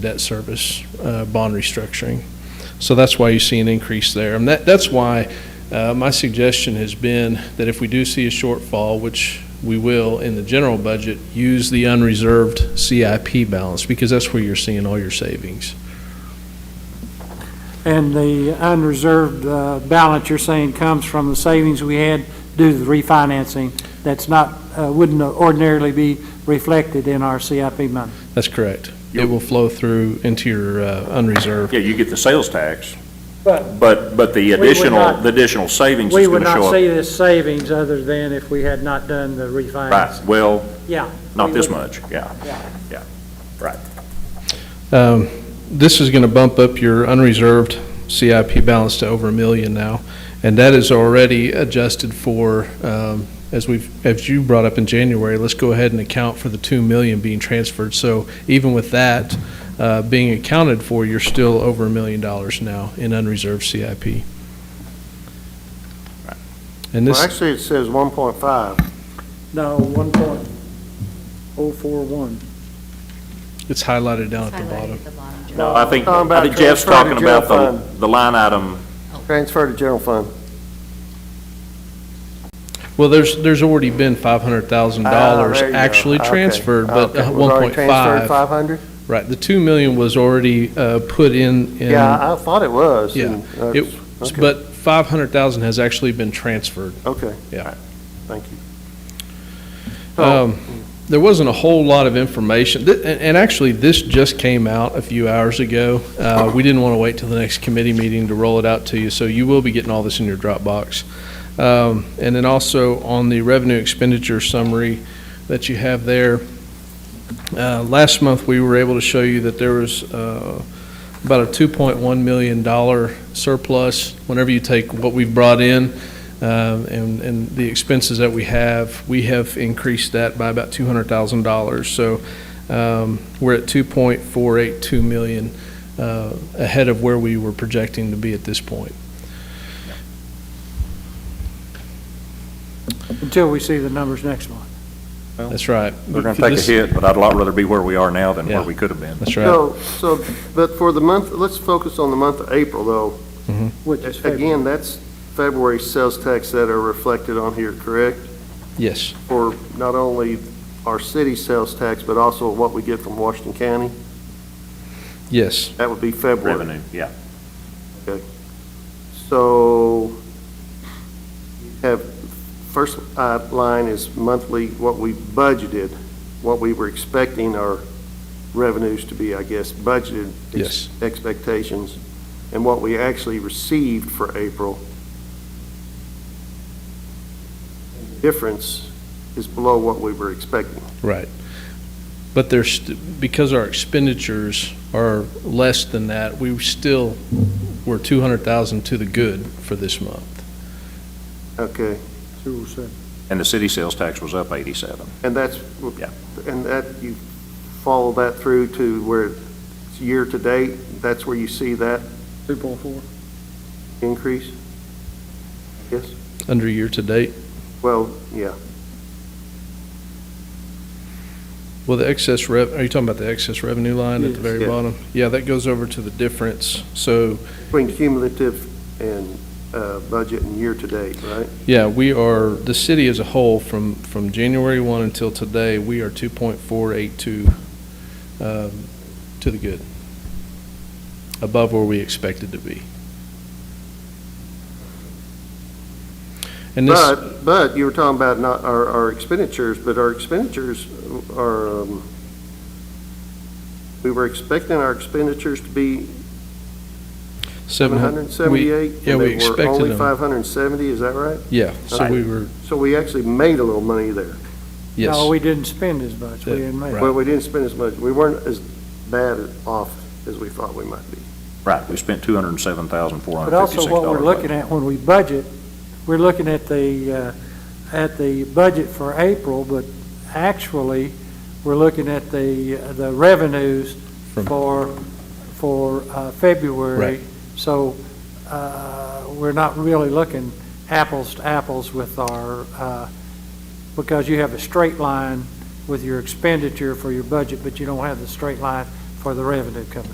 debt service uh, bond restructuring. So that's why you see an increase there. And that, that's why uh, my suggestion has been that if we do see a shortfall, which we will in the general budget, use the unreserved CIP balance because that's where you're seeing all your savings. And the unreserved uh, balance you're saying comes from the savings we had due to the refinancing. That's not, uh, wouldn't ordinarily be reflected in our CIP money. That's correct. It will flow through into your uh, unreserved. Yeah, you get the sales tax, But but, but the would additional, not- the additional savings we is would gonna not show up. see this savings other than if we had not done the Right, refinancing. well, Yeah. not we this would- much, yeah. Um, This is going to bump up your unreserved CIP balance to over a million now, and that is already adjusted for, um, as we've, as you brought up in January, let's go ahead and account for the 2 million being transferred. So even with that uh, being accounted for, you're still over a million dollars now in unreserved CIP. And Well, this, actually, it says 1.5. No, one point oh four one. it's highlighted down at the Highlighted bottom. at the bottom, Joe. No, I think, Talking I about think Jeff's transfer to talking about general the, the line item, Transfer to general fund. Well, there's, there's already been Ah, $500,000 there you go. actually Okay, transferred, but okay. uh, It was 1.5 already transferred 500? Right, the 2 million was already uh, put in. in- Yeah, I thought it was. Yeah. and that's- It- okay, But 500,000 has actually been transferred. Okay. Yeah. Thank you. Oh, So, Um, There wasn't a whole lot of information, Th- and and actually, this just came out a few hours ago. Uh, We didn't want to wait till the next committee meeting to roll it out to you, so you will be getting all this in your Dropbox. Um, And then also on the revenue expenditure summary that you have there, uh, last month, we were able to show you that there was uh, about a $2.1 million surplus. Whenever you take what we've brought in um, and, and the expenses that we have, we have increased that by about two hundred thousand dollars. So um, we're at two point four eight two million uh, ahead of where we were projecting to be at this point. Until we see the numbers next month. That's right. we're gonna take a hit, but I'd a lot rather be where we are now than Yeah. where we could have been. That's right. So, so, but for the month, let's focus on the month of April, though. Which is February. Again, that's February sales tax that are reflected on here, correct? Yes, For not only our city sales tax, but also what we get from Washington County? yes. That would be February. Revenue, yeah. So, have, first uh, line is monthly, what we budgeted, what we were expecting our revenues to be, I guess, budgeted. ex- Yes. Expectations, and what we actually received for April. Difference is below what we were expecting. Right. But there's, st- because our expenditures are less than that, we still were 200,000 to the good for this month. Okay, oh And the city sales tax was up eighty-seven. and that's, Yeah. and that, you follow that through to where it's year-to-date, that's where you see that Two point four. increase? Yes, Under year-to-date, well, yeah, Well, the excess rev, are you talking about the excess revenue line at the very Yes. Yeah. bottom? Yeah, that goes over to the difference. So, between cumulative and uh, budget and year-to-date, right? yeah, we are, the city as a whole, from, from January 1 until today, we are 2.482 um, to the good, above where we expected to be. And this. But, but you were talking about not, our, our expenditures, but our expenditures are, um, we were expecting our expenditures to be seven seven hun- hundred and seventy-eight? we- Yeah, we expected And they were only them. five hundred and seventy, is that right? Yeah, so Right. we were, So we actually made a little money there. yes. No, we didn't spend as much. We didn't make. Right. Well, we didn't spend as much, we weren't as bad off as we thought we might be. Right, we spent two hundred and seven thousand, four But hundred and fifty-six also dollars. what we're looking at when we budget, we're looking at the, uh, at the budget for April, but actually, we're looking at the, uh, the revenues From- for, for uh, February. Right. So uh, we're not really looking apples to apples with our, uh, because you have a straight line with your expenditure for your budget, but you don't have the straight line for the revenue coming